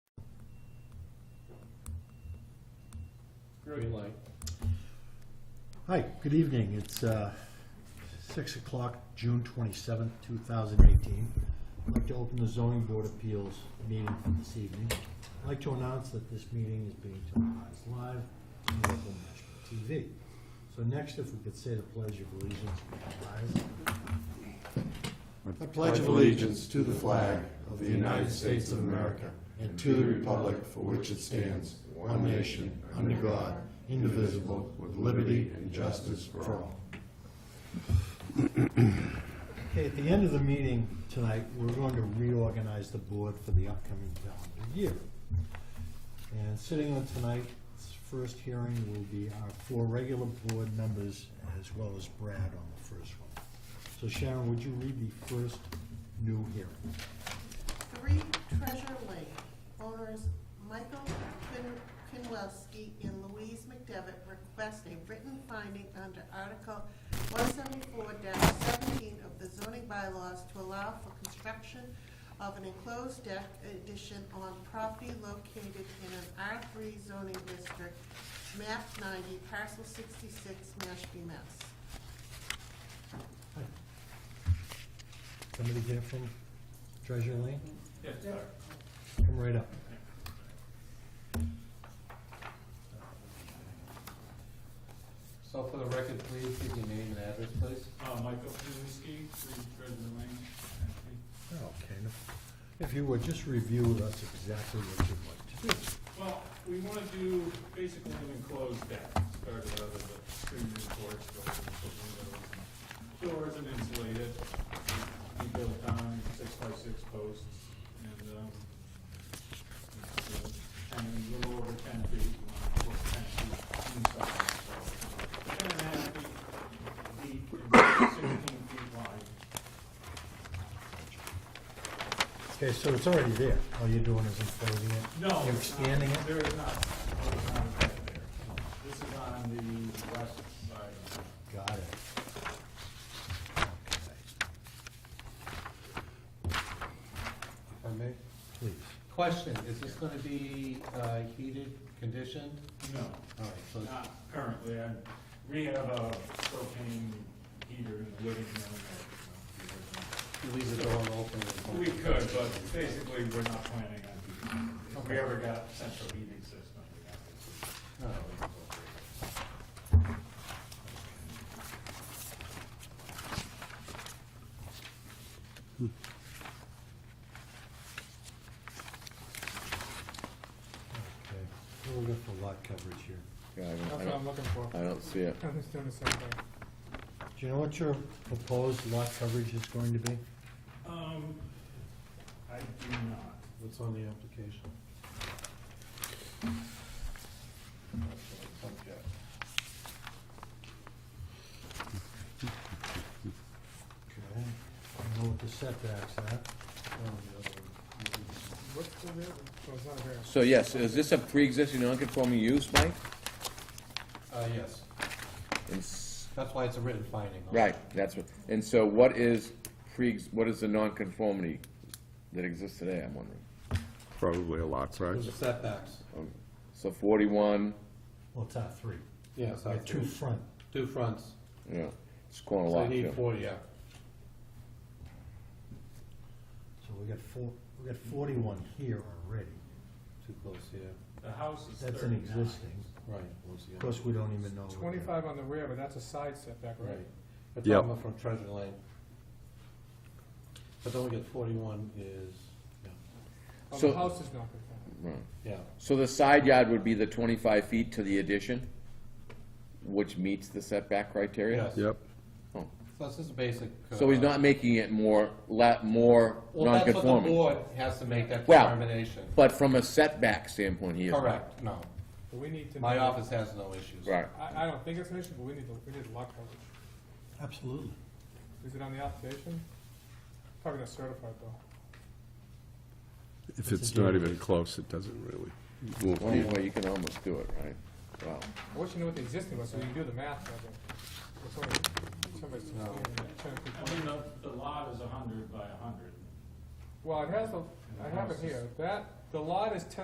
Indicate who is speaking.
Speaker 1: Green light.
Speaker 2: Hi, good evening. It's uh, 6 o'clock, June 27th, 2018. I'd like to open the zoning board appeals meeting for this evening. I'd like to announce that this meeting is being televised live on local national TV. So next, if we could say the pledge of allegiance.
Speaker 3: I pledge allegiance to the flag of the United States of America and to the republic for which it stands, one nation, under God, indivisible, with liberty and justice for all.
Speaker 2: Okay, at the end of the meeting tonight, we're going to reorganize the board for the upcoming calendar year. And sitting on tonight's first hearing will be our four regular board members as well as Brad on the first one. So Sharon, would you read the first new hearing?
Speaker 4: Three Treasure Lake, owners Michael Kin- Kinwelski and Louise McDevitt request a written finding under Article one seventy-four seventeen of the zoning bylaws to allow for construction of an enclosed deck addition on property located in an R three zoning district, map ninety, parcel sixty-six, Mashpee, Mass.
Speaker 2: Somebody get it from Treasure Lane?
Speaker 1: Yeah, sorry.
Speaker 2: Come right up.
Speaker 1: So for the record, please give your name and address, please.
Speaker 5: Uh, Michael Kuzinski, three Treasure Lane.
Speaker 2: Okay, now, if you would, just review with us exactly what you'd like to do.
Speaker 5: Well, we wanna do basically an enclosed deck, started out as a screen roof porch, but we put windows and doors and insulated. We built down six by six posts and, um, it's, uh, ten, a little over ten feet, uh, or ten feet inside, so ten and a half feet deep and sixteen feet wide.
Speaker 2: Okay, so it's already there. All you're doing is enclosing it?
Speaker 5: No.
Speaker 2: You're
Speaker 5: it's not.
Speaker 2: expanding it?
Speaker 5: There is not. There is not a deck there. This is on the west side.
Speaker 2: Got it. Okay,
Speaker 1: If I may.
Speaker 2: Please.
Speaker 1: Question, is this gonna be uh, heated, conditioned?
Speaker 5: No,
Speaker 1: All right, so
Speaker 5: not currently. I, we have a propane heater in the living room.
Speaker 1: you leave the door open. and-
Speaker 5: We could, but basically, we're not planning on, if we ever got central heating system, we have to.
Speaker 1: Oh.
Speaker 2: Okay. We're looking for lot coverage here.
Speaker 6: Yeah, I don't,
Speaker 7: That's
Speaker 6: I
Speaker 7: what I'm
Speaker 6: don't,
Speaker 7: looking for.
Speaker 6: I don't see it.
Speaker 7: Nothing's doing the same thing.
Speaker 2: Do you know what your proposed lot coverage is going to be?
Speaker 5: Um, I do not.
Speaker 1: What's on the application?
Speaker 2: Okay. I know what the setbacks are.
Speaker 7: What's the real, oh, it's not a variance.
Speaker 6: So yes, is this a pre-existing non-conforming use, Mike?
Speaker 1: Uh, yes,
Speaker 6: And s-
Speaker 1: that's why it's a written finding.
Speaker 6: Right, that's what, and so what is pre, what is the non-conformity that exists today, I'm wondering?
Speaker 3: Probably a lot, right?
Speaker 1: There's setbacks.
Speaker 6: So forty-one,
Speaker 2: Well, it's not three.
Speaker 1: Yes,
Speaker 2: There are two front.
Speaker 1: Two fronts,
Speaker 6: yeah, it's going a
Speaker 1: so you
Speaker 6: lot,
Speaker 1: need
Speaker 6: yeah.
Speaker 1: four, yeah.
Speaker 2: So we got four, we got forty-one here already.
Speaker 1: Too close, yeah,
Speaker 5: The house is
Speaker 2: That's an
Speaker 5: thirty-nine.
Speaker 2: existing.
Speaker 1: right.
Speaker 2: Of course, we don't even know. what the-
Speaker 7: Twenty-five on the rear, but that's a side setback,
Speaker 1: Right.
Speaker 7: right?
Speaker 1: We're
Speaker 3: Yep.
Speaker 1: talking about from Treasure Lane. But then we get forty-one is,
Speaker 7: Oh,
Speaker 6: So-
Speaker 7: the house is not conforming.
Speaker 6: Right.
Speaker 1: yeah,
Speaker 6: So the side yard would be the twenty-five feet to the addition, which meets the setback criteria?
Speaker 1: yes.
Speaker 3: Yep,
Speaker 1: So this is a basic. uh,
Speaker 6: So he's not making it more, la, more
Speaker 1: Well, that's what the
Speaker 6: non-conforming?
Speaker 1: board has to make that
Speaker 6: Well-
Speaker 1: determination.
Speaker 6: But from a setback standpoint, he is.
Speaker 1: Correct, no.
Speaker 7: But we need to.
Speaker 1: My
Speaker 7: know-
Speaker 1: office has no issues.
Speaker 6: Right.
Speaker 7: I, I don't think it's an issue, but we need to, we need lot coverage.
Speaker 2: Absolutely.
Speaker 7: Is it on the application? Probably not certified though.
Speaker 3: if it's not even close, it doesn't really, won't
Speaker 6: Well,
Speaker 3: be-
Speaker 6: Anyway, you can almost do it, right? Wow.
Speaker 7: I wish you knew what the existing was, so you can do the math, I think. It's only- somebody's
Speaker 1: No.
Speaker 7: 16, 10,
Speaker 5: I
Speaker 7: 15.
Speaker 5: mean, the, the lot is a hundred by a hundred.
Speaker 7: Well, it has the, I have it here. That, the lot is ten